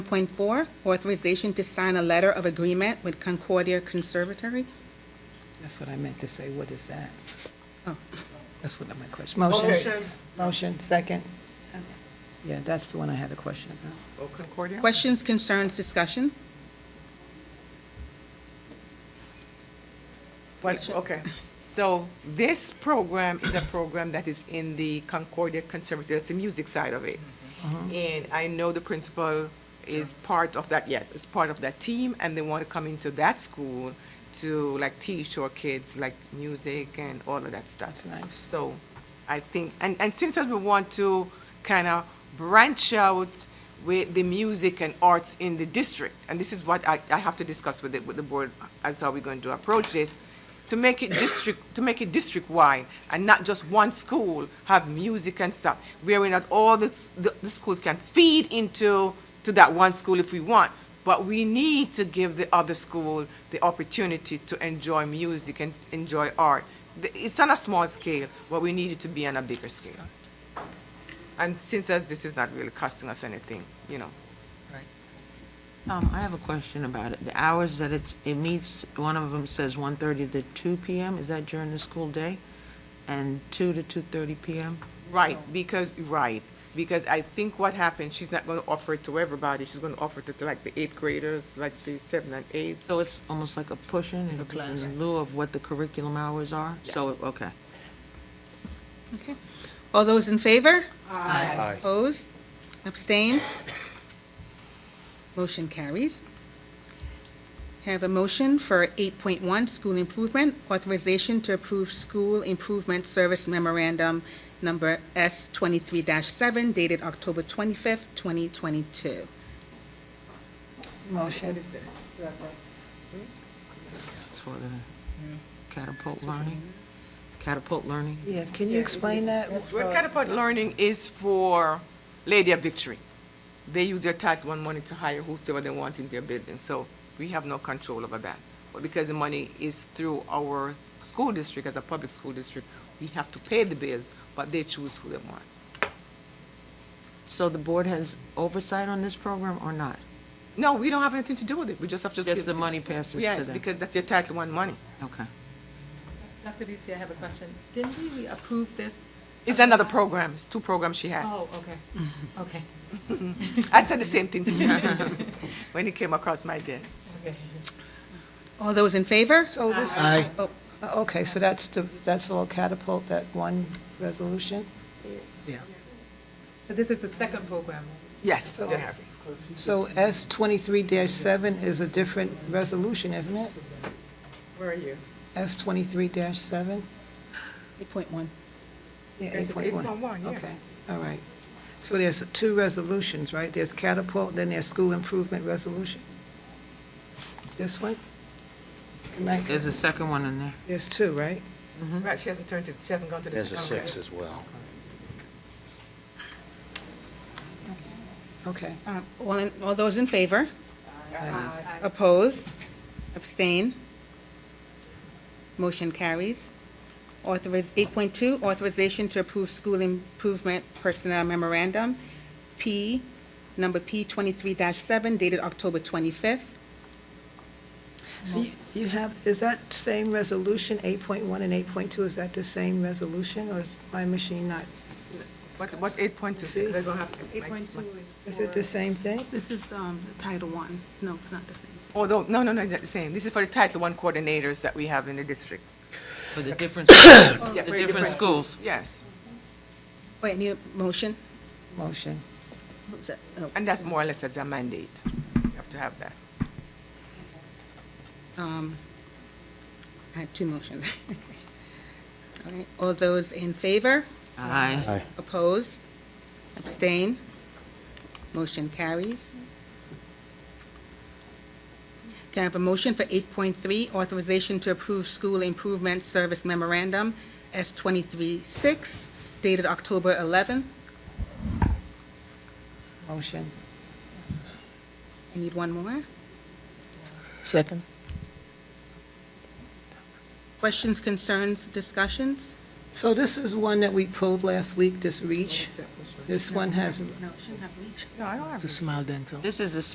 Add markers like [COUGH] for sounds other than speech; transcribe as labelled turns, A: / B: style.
A: 5.4, authorization to sign a letter of agreement with Concordia Conservatory.
B: That's what I meant to say, what is that?
A: Oh.
B: That's what my question, motion,
C: Motion.
B: motion, second? Yeah, that's the one I had a question about.
C: Oh, Concordia?
A: Questions, concerns, discussion?
C: Well, okay. So this program is a program that is in the Concordia Conservatory, it's the music side of it.
B: Mm-hmm.
C: And I know the principal is part of that, yes, is part of that team, and they want to come into that school to like teach our kids like music and all of that stuff.
B: That's nice.
C: So I think, and, and since as we want to kind of branch out with the music and arts in the district, and this is what I, I have to discuss with the, with the board as how we're going to approach this, to make it district, to make it district-wide and not just one school have music and stuff, wherein that all the, s- the, the schools can feed into, to that one school if we want. But we need to give the other school the opportunity to enjoy music and enjoy art. The- It's on a small scale, but we need it to be on a bigger scale. And since as this is not really costing us anything, you know.
D: Um, I have a question about it. The hours that it's, it meets, one of them says 1:30 to 2 PM, is that during the school day? And 2 to 2:30 PM?
C: Right, because, right, because I think what happened, she's not gonna offer it to everybody, she's gonna offer it to like the eighth graders, like the seven and eight.
D: So it's almost like a push-in in- in lieu of what the curriculum hours are? So,
C: Yes.
D: okay.
A: Okay. All those in favor? Aye. Opposed? Abstain? Motion carries. Have a motion for 8.1, school improvement, authorization to approve school improvement service memorandum number S23-7 dated October 25th, 2022.
B: Motion,
D: It's for the catapult learning? Catapult learning?
B: yeah, can you explain that?
C: Well, Catapult Learning is for Lady of Victory. They use their Title One money to hire whosoever they want in their building, so we have no control over that. But because the money is through our school district, as a public school district, we have to pay the bills, but they choose who they want.
D: So the board has oversight on this program or not?
C: No, we don't have anything to do with it, we just have to.
D: Just
C: give-
D: the money passes to them?
C: Yes, because that's your Title One money.
D: Okay.
E: Dr. Beasley, I have a question. Didn't we- we approve this?
C: It's another program, it's two programs she has.
E: Oh, okay, okay,
C: I said the same thing to her [LAUGHS] when it came across my desk.
E: okay.
A: All those in favor?
B: So this, uh,
F: Aye.
A: Oh,
B: okay, so that's the, that's all catapult, that one resolution?
E: So this is the second program?
C: Yes,
B: So-
C: they have.
B: So S twenty-three seven is a different resolution, isn't it?
C: Where are you?
B: S twenty-three seven?
A: 8.1.
B: Yeah,
C: Yes,
B: eight
C: it's
B: point one.
C: 8.1, yeah.
B: Okay, all right. So there's two resolutions, right? There's catapult, then there's school improvement resolution? This one? Am I-
D: There's a second one in there.
B: There's two, right?
C: Right, she hasn't turned to, she hasn't gone to the.
F: There's a
C: second round.
F: six as well.
B: Okay.
A: Um, All in- all those in favor?
B: Aye.
A: Opposed? Abstain? Motion carries. Authoriz, 8.2, authorization to approve school improvement personnel memorandum, P, number P 23-7 dated October 25th.
B: So you- you have, is that same resolution, 8.1 and 8.2, is that the same resolution, or is my machine not?
C: What, what eight point two
B: See?
C: six, they're gonna have.
E: Eight point two is
B: Is it the
E: for,
B: same thing?
A: This is um, Title One. No, it's not the same.
C: Although, no, no, no, that's the same, this is for the Title One coordinators that we have in the district.
D: For the
C: [COUGHS]
D: different, the
E: Oh.
C: Yeah, for
D: different schools.
C: Yes,
A: Wait, need a motion?
B: Motion.
A: Who's that? Oh,
C: and that's more or less as a mandate, you have to have that.
A: um, I had two motions. [LAUGHS] All right, all those in favor?
D: Aye.
A: Oppose? Abstain? Motion carries. Can I have a motion for 8.3, authorization to approve school improvement service memorandum, S-23-6, dated October 11th?
B: Motion.
A: I need one more.
F: Second?
A: Questions, concerns, discussions?
B: So this is one that we pulled last week, this REACH. This one has
A: No, shouldn't have reached.
C: No, I don't have.
F: It's a smile dental.
D: This is the